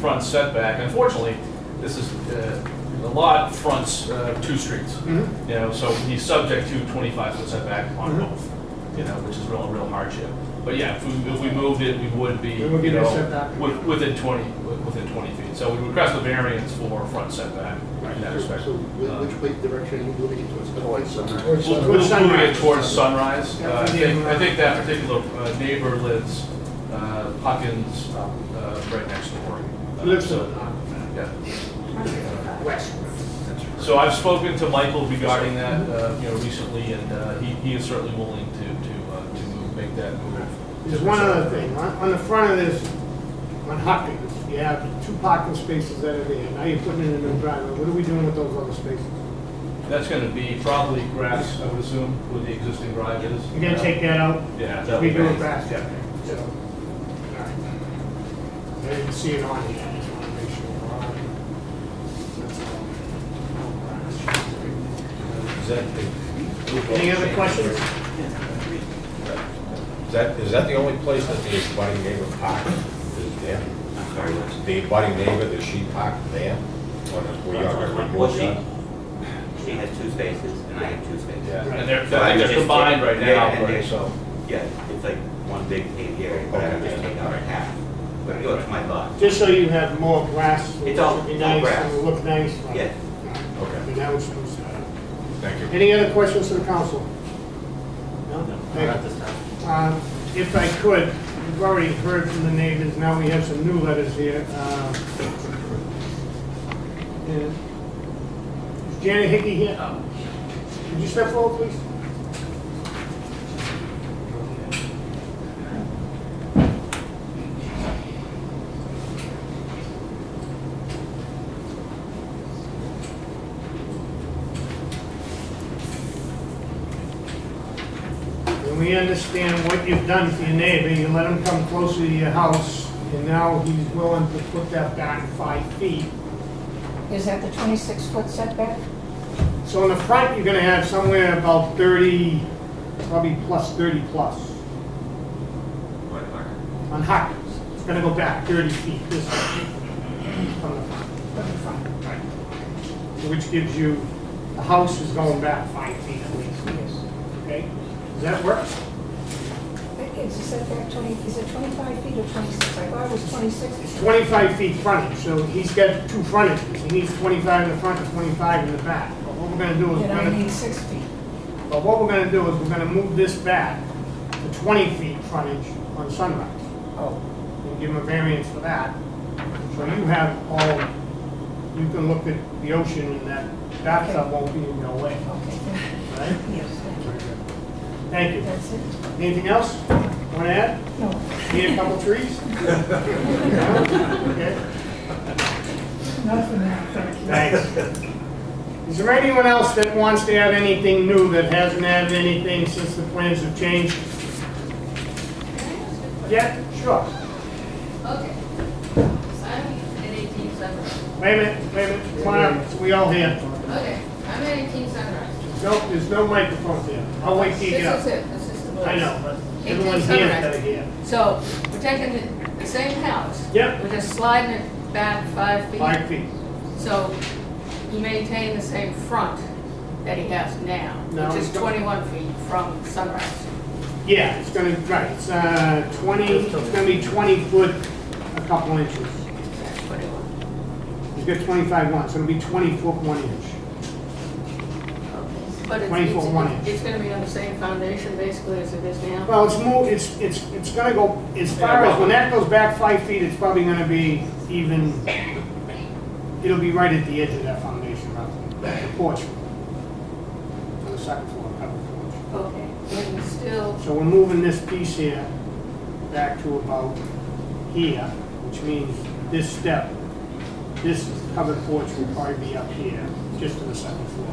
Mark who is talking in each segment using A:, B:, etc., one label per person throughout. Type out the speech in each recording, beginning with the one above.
A: front setback, unfortunately, this is, uh, the lot fronts uh, two streets.
B: Mhm.
A: You know, so he's subject to 25-foot setback on
B: Mhm.
A: both, you know, which is real, real hardship. But yeah, if we, if we moved it, we would be,
B: It would be
A: you
B: no
A: know,
B: setback.
A: wi- within 20, wi- within 20 feet. So we would request the variance for front setback in that
C: So
A: respect.
C: so whi- which way direction are you moving it towards? Towards sunrise.
B: Towards-
A: We'll
B: Towards
A: we'll move it
B: sunrise.
A: towards sunrise.
B: Yeah,
A: Uh, I
B: for the,
A: think, I
B: uh,
A: think that particular uh, neighbor lives, uh, Huckins, uh, right next door. Uh,
B: Lives
A: so-
B: on
A: Yeah.
B: uh, west.
A: So I've spoken to Michael regarding that, uh, you know, recently, and uh, he he is certainly willing to, to, uh, to move- make that move.
B: There's one other thing, on, on the front of this, on Hopkins, you have two parking spaces that are there, now you're putting in a new driveway, what are we doing with those other spaces?
A: That's gonna be probably grass, I would assume, with the existing drive is.
B: You're gonna take that out?
A: Yeah. that
B: We
A: would
B: do
A: be-
B: it fast,
A: yeah.
B: so. all right. I didn't see it on here, I just wanna make sure. we're on it. That's all.
D: Is that the-
B: Any other questions?
D: Is that, is that the only place that the abutting neighbor parked, is there?
E: Sorry, Liz.
D: The abutting neighbor, does she park there? Or does we are going to
E: Well,
D: remove
E: she,
D: that?
E: she has two spaces and I have two spaces.
A: Yeah, and they're, I think they're combined right
E: Yeah, and
A: now,
E: they're-
A: right, so.
E: Yeah, it's like one big paved area, but I would just take out half, but it goes to my lot.
B: Just so you have more grass, it
E: It's all-
B: should be
E: all
B: nice,
E: grass.
B: and look nice. right?
E: Yeah.
D: Okay.
B: And that was supposed to.
D: Thank you.
B: Any other questions to the council? No? Thank you. Uh, If I could, we've already heard from the neighbors, now we have some new letters here. Uh, and- Is Janet Hickey here? Could you step forward, please? And we understand what you've done for your neighbor, you let him come closer to your house, and now he's willing to put that back five feet.
F: Is that the 26-foot setback?
B: So in the front, you're gonna have somewhere about thirty, probably plus thirty plus on Hopkins. It's gonna go back thirty feet this way from the front.
F: From the front?
B: Right. Which gives you, the house is going back five feet at least,
F: Yes.
B: okay? Does that work?
F: Is the setback 20, is it 25 feet or 26? I thought it was 26.
B: It's twenty-five feet frontage, so he's got two frontages. He needs twenty-five in the front and twenty-five in the back. But what we're gonna do is we're
F: And I
B: gonna
F: need six feet.
B: But what we're gonna do is we're gonna move this back to twenty feet frontage on Sunrise. Oh. And give them a variance for that. So you have all, you can look at the ocean and that bathtub won't be in your way,
F: Okay, thank
B: right?
F: you. yes, thank you.
B: Thank you.
F: That's it?
B: Anything else? Wanna add?
F: No.
B: Need a couple trees? No? Okay.
F: Nothing, now, thank you.
B: Thanks. Is there anyone else that wants to add anything new that hasn't added anything since the plans have changed? Yeah, sure.
G: Okay. So I'm at eighteen sunrise.
B: Wait a minute, wait a minute, come on up, we all here.
G: Okay, I'm at eighteen sunrise.
B: No, there's no microphone there. I'll wait till you get
G: This is
B: up.
G: it, this is the voice.
B: I know, but
G: 18
B: everyone's here
G: sunrise.
B: instead of here.
G: So we're taking the, the same house.
B: Yep.
G: We're just sliding it back five feet.
B: Five feet.
G: So you maintain the same front that he has now,
B: No,
G: which is
B: it's-
G: twenty-one feet from sunrise.
B: Yeah, it's gonna, right, it's, uh, twenty, it's gonna be twenty foot, a couple inches.
G: That's what it was.
B: You get twenty-five one, so it'll be twenty foot one inch.
G: But it's-
B: 24
G: it's-
B: one inch.
G: It's gonna be on the same foundation basically as it is now.
B: Well, it's more, it's, it's, it's gonna go, as far as, when that goes back five feet, it's probably gonna be even, it'll be right at the edge of that foundation, right, the porch. On the second floor, covered porch.
G: Okay, and still,
B: So we're moving this piece here back to about here, which means this step, this covered porch will probably be up here, just to the second floor.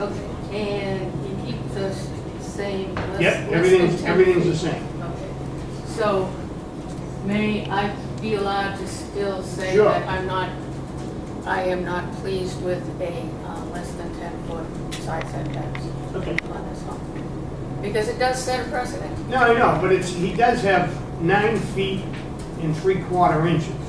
G: okay, and you keep the s- same. let's-
B: Yep,
G: let's
B: everything's,
G: say 10
B: everything's the
G: feet.
B: same.
G: Okay, so may I be allowed to still say
B: Sure.
G: that I'm not, I am not pleased with a uh, less than 10-foot side setbacks
B: Okay.
G: on this home? Because it does set a precedent.
B: No, I know, but it's, he does have nine feet and three quarter inches.